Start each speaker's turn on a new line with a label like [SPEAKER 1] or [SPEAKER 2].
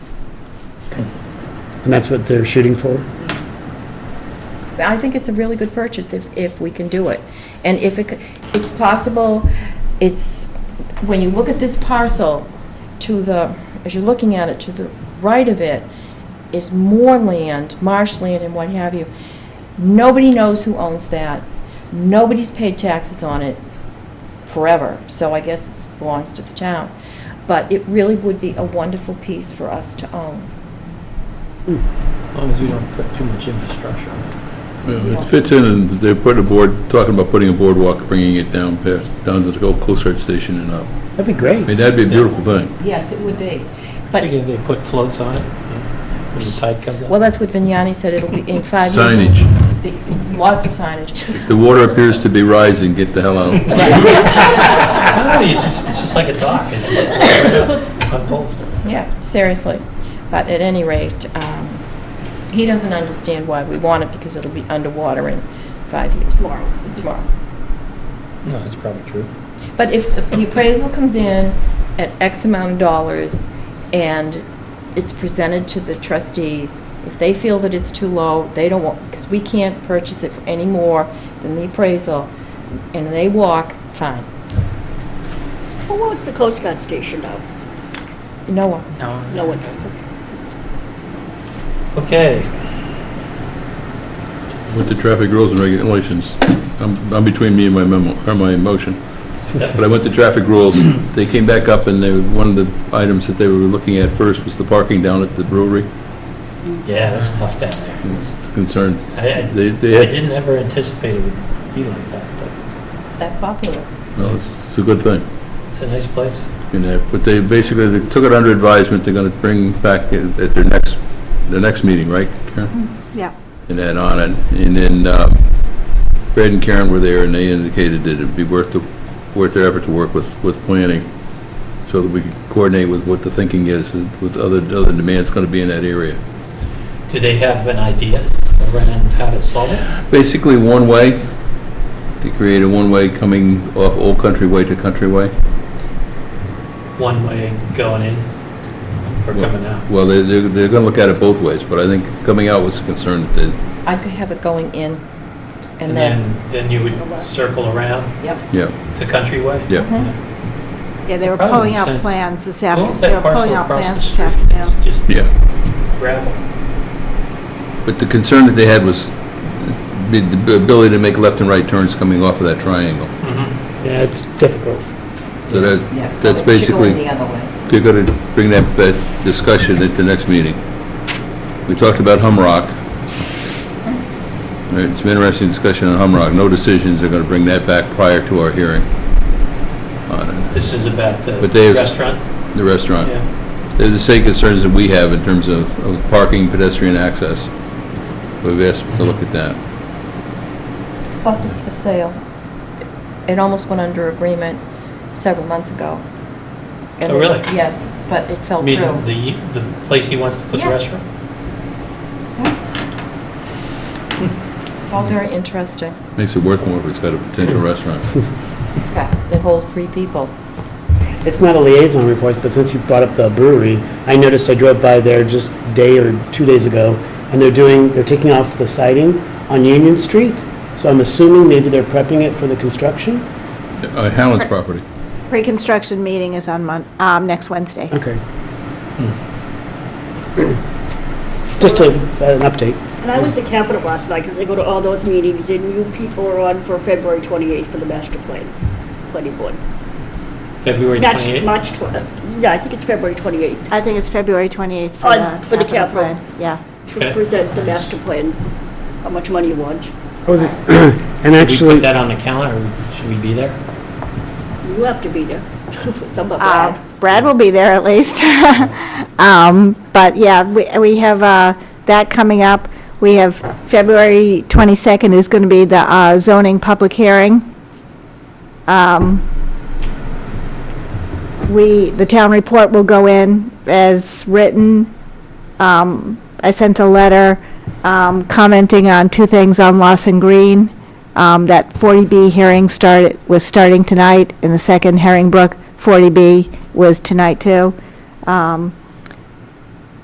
[SPEAKER 1] And that's what they're shooting for?
[SPEAKER 2] I think it's a really good purchase if, if we can do it. And if it, c- it's possible, it's, when you look at this parcel, to the, as you're looking at it, to the right of it is moorland, marshland and what have you. Nobody knows who owns that. Nobody's paid taxes on it forever, so I guess it belongs to the town. But it really would be a wonderful piece for us to own.
[SPEAKER 3] As long as we don't put too much infrastructure on it.
[SPEAKER 4] Well, It fits in, and they're putting a board, talking about putting a boardwalk, bringing it down past, down to the old Coast Guard Station and up.
[SPEAKER 1] That'd be
[SPEAKER 4] I
[SPEAKER 1] great.
[SPEAKER 4] mean, that'd be a beautiful thing.
[SPEAKER 2] Yes, it would be. But
[SPEAKER 3] Particularly if they put floats on it, you know, when the tide comes up.
[SPEAKER 2] Well, that's what Vignani said, it'll be in five years.
[SPEAKER 4] Signage.
[SPEAKER 2] the- Lots of signage.
[SPEAKER 4] If the water appears to be rising, get the hell out.
[SPEAKER 3] I don't know, you just, it's just like a dock, it just floats right up on poles.
[SPEAKER 2] Yeah, seriously. But at any rate, um, he doesn't understand why we want it, because it'll be underwater in five years. Tomorrow. Tomorrow.
[SPEAKER 3] No, that's probably true.
[SPEAKER 2] But if the appraisal comes in at X amount of dollars and it's presented to the trustees, if they feel that it's too low, they don't want, because we can't purchase it for any more than the appraisal, and they walk, fine.
[SPEAKER 5] Who owns the Coast Guard station now?
[SPEAKER 2] No one.
[SPEAKER 5] No one does, okay.
[SPEAKER 3] Okay,
[SPEAKER 4] With the traffic rules and regulations, I'm, I'm between me and my memo, or my motion. But I went to traffic rules, they came back up, and they, one of the items that they were looking at first was the parking down at the brewery.
[SPEAKER 3] yeah, that's tough down there.
[SPEAKER 4] It's concerned,
[SPEAKER 3] I, I
[SPEAKER 4] they,
[SPEAKER 3] I
[SPEAKER 4] they had
[SPEAKER 3] didn't ever anticipate it would be like that,
[SPEAKER 2] It's that popular.
[SPEAKER 4] No, it's, it's a good thing.
[SPEAKER 3] but it's a nice place.
[SPEAKER 4] You know, but they basically, they took it under advisement, they're gonna bring back at at their next, their next meeting, right, Karen?
[SPEAKER 5] Yeah.
[SPEAKER 4] And then on it, and then, um, Brad and Karen were there, and they indicated that it'd be worth the, worth their effort to work with, with planning, so that we could coordinate with what the thinking is, and with other, other demands gonna be in that area.
[SPEAKER 3] Do they have an idea around how to solve it?
[SPEAKER 4] Basically, one-way, to create a one-way coming off Old Country Way to Country Way.
[SPEAKER 3] One way going in or coming out?
[SPEAKER 4] Well, they, they're, they're gonna look at it both ways, but I think coming out was a concern that they
[SPEAKER 2] I could have it going in and then,
[SPEAKER 3] Then you would circle around
[SPEAKER 2] yep.
[SPEAKER 4] Yeah,
[SPEAKER 3] to Countryway?
[SPEAKER 4] yeah.
[SPEAKER 6] Yeah, they were
[SPEAKER 3] Probably
[SPEAKER 6] pulling
[SPEAKER 3] makes
[SPEAKER 6] out
[SPEAKER 3] sense.
[SPEAKER 6] plans this
[SPEAKER 3] As long as
[SPEAKER 6] afternoon. They
[SPEAKER 3] that
[SPEAKER 6] were pulling
[SPEAKER 3] parcel
[SPEAKER 6] out
[SPEAKER 3] across
[SPEAKER 6] plans
[SPEAKER 3] the
[SPEAKER 6] this
[SPEAKER 3] street is
[SPEAKER 6] afternoon.
[SPEAKER 3] just
[SPEAKER 4] Yeah,
[SPEAKER 3] gravel.
[SPEAKER 4] but the concern that they had was the the ability to make left and right turns coming off of that triangle.
[SPEAKER 7] Yeah, it's difficult.
[SPEAKER 4] So
[SPEAKER 2] Yeah,
[SPEAKER 4] that,
[SPEAKER 2] so
[SPEAKER 4] that's
[SPEAKER 2] it should go in the
[SPEAKER 4] basically,
[SPEAKER 2] other way.
[SPEAKER 4] they're going to bring that, that discussion at the next meeting. We talked about Humrock. All right, It's an interesting discussion on Humrock. No decisions, they're going to bring that back prior to our hearing on
[SPEAKER 3] This is about the
[SPEAKER 4] But Uh. they-
[SPEAKER 3] restaurant?
[SPEAKER 4] the restaurant.
[SPEAKER 3] Yeah.
[SPEAKER 4] They're the same concerns that we have in terms of of parking, pedestrian access. We've asked to look at that.
[SPEAKER 2] Plus, it's for sale. It almost went under agreement several months ago. And
[SPEAKER 3] Oh,
[SPEAKER 2] it-
[SPEAKER 3] really?
[SPEAKER 2] Yes, but it
[SPEAKER 3] I
[SPEAKER 2] fell
[SPEAKER 3] mean,
[SPEAKER 2] through.
[SPEAKER 3] the, the place he wants to put the
[SPEAKER 2] Yeah.
[SPEAKER 3] restaurant?
[SPEAKER 2] It's all very interesting.
[SPEAKER 4] Makes it worth more if it's got a potential restaurant.
[SPEAKER 2] Yeah, That holds three people.
[SPEAKER 1] It's not a liaison report, but since you brought up the brewery, I noticed I drove by there just day or two days ago, and they're doing, they're taking off the siding on Union Street, so I'm assuming maybe they're prepping it for the construction?
[SPEAKER 4] Uh, Howland's property.
[SPEAKER 6] Pre-construction meeting is on Mon, um, next Wednesday.
[SPEAKER 1] Okay.
[SPEAKER 3] Hmm.
[SPEAKER 1] Just a, an update.
[SPEAKER 5] And I was at Capitol last night because I go to all those meetings and you people are on for February 28th for the master plan, planning board.
[SPEAKER 3] February
[SPEAKER 5] March,
[SPEAKER 3] 28th?
[SPEAKER 5] March, tw- uh, yeah, I think it's February 28th
[SPEAKER 6] I think it's February 28th for
[SPEAKER 5] On-
[SPEAKER 6] the.
[SPEAKER 5] for the
[SPEAKER 6] capital
[SPEAKER 5] capital.
[SPEAKER 6] plan. Yeah.
[SPEAKER 5] to
[SPEAKER 3] Okay.
[SPEAKER 5] present the master plan, how much money you want.
[SPEAKER 1] I was- Oh, And
[SPEAKER 3] Should we
[SPEAKER 1] actually,
[SPEAKER 3] put that on the calendar, or should we be there?
[SPEAKER 5] You have to be there, some of
[SPEAKER 6] Uh,
[SPEAKER 5] that.
[SPEAKER 6] Brad will be there at least. Um, But yeah, we we have uh, that coming up. We have, February 22nd is going to be the uh, zoning public hearing. Um, We, the town report will go in as written. Um, I sent a letter um, commenting on two things on Lawson Green. Um, That 40B hearing started, was starting tonight, and the second Herringbrook 40B was tonight, too. Um,